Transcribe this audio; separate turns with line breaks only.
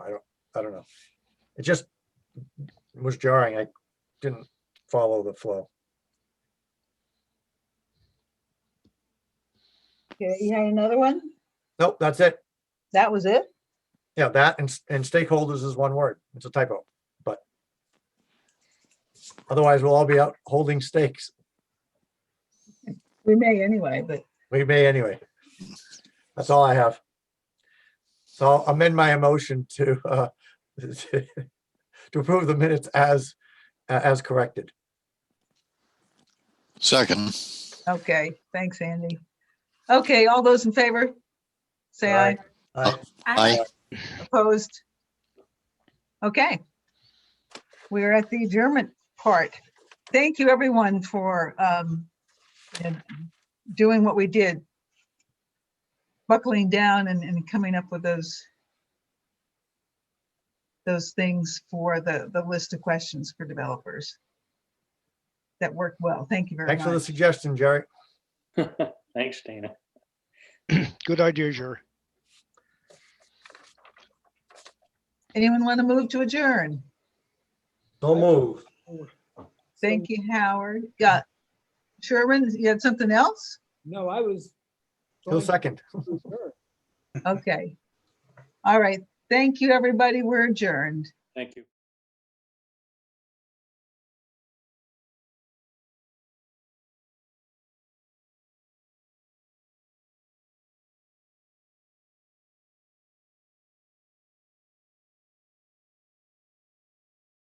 I don't know. It just was jarring. I didn't follow the flow.
Okay, you had another one?
Nope, that's it.
That was it?
Yeah, that and, s- and stakeholders is one word. It's a typo, but otherwise we'll all be out holding stakes.
We may anyway, but
We may anyway. That's all I have. So I'll amend my emotion to, uh, to approve the minutes as, as corrected.
Second,
okay, thanks, Andy. Okay, all those in favor? Say aye,
Aye.
I,
opposed? Okay. We're at the adjournment part. Thank you, everyone, for um, you know, doing what we did. Buckling down and, and coming up with those those things for the, the list of questions for developers. That worked well. Thank you very much.
Thanks for the suggestion, Jerry.
Thanks, Dana.
Good idea, Jerry.
Anyone want to move to adjourn?
No move.
Thank you, Howard. Got Sherman, you had something else?
No, I was.
No
going
second.
to her.
Okay. All right. Thank you, everybody. We're adjourned.
Thank you.